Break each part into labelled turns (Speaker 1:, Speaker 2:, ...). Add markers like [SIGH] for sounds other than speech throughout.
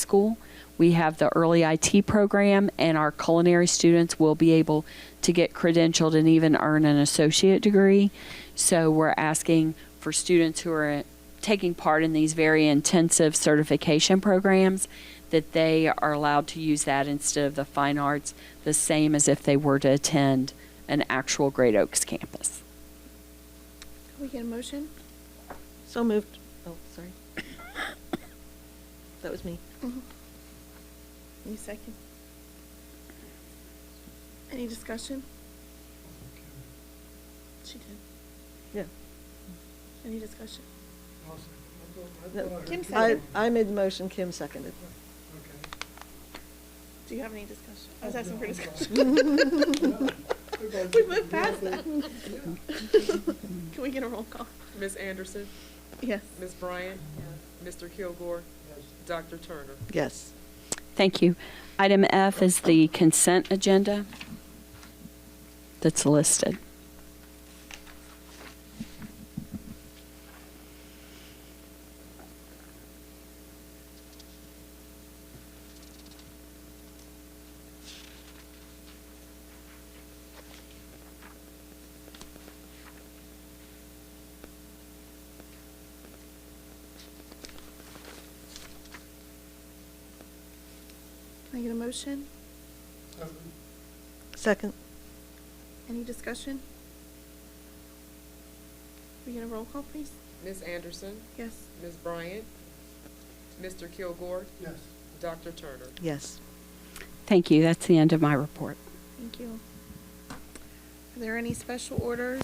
Speaker 1: school. We have the early IT program, and our culinary students will be able to get credentialed and even earn an associate degree. So we're asking for students who are taking part in these very intensive certification programs that they are allowed to use that instead of the fine arts, the same as if they were to attend an actual Great Oaks campus.
Speaker 2: Can we get a motion?
Speaker 3: So moved. Oh, sorry. That was me.
Speaker 2: Any second? Any discussion? She did.
Speaker 3: Yeah.
Speaker 2: Any discussion?
Speaker 3: No,
Speaker 2: Kim
Speaker 3: I,
Speaker 2: seconded.
Speaker 3: I made the motion, Kim seconded.
Speaker 2: Do you have any discussion? I was asking for discussion. [LAUGHS] We moved past that. Can we get a roll call?
Speaker 4: Ms. Anderson,
Speaker 2: Yes.
Speaker 4: Ms. Bryant, Mr. Kilgore, Dr. Turner.
Speaker 3: Yes.
Speaker 1: Thank you. Item F is the consent agenda that's listed.
Speaker 2: Can I get a motion?
Speaker 3: Second.
Speaker 2: Any discussion? Can we get a roll call, please?
Speaker 4: Ms. Anderson,
Speaker 2: Yes.
Speaker 4: Ms. Bryant, Mr. Kilgore,
Speaker 5: Yes.
Speaker 4: Dr. Turner.
Speaker 3: Yes.
Speaker 1: Thank you. That's the end of my report.
Speaker 2: Thank you. Are there any special orders?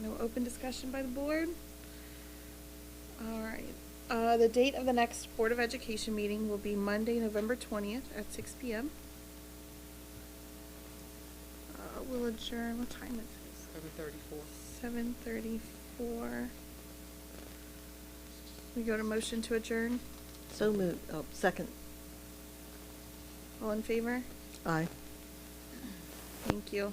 Speaker 2: No open discussion by the board? All right. Uh, the date of the next Board of Education meeting will be Monday, November twentieth at six P M. Uh, we'll adjourn, what time is it?
Speaker 4: Seven thirty-four.
Speaker 2: Seven thirty-four. We go to motion to adjourn.
Speaker 3: So moved. Oh, second.
Speaker 2: All in favor?
Speaker 3: Aye.
Speaker 2: Thank you.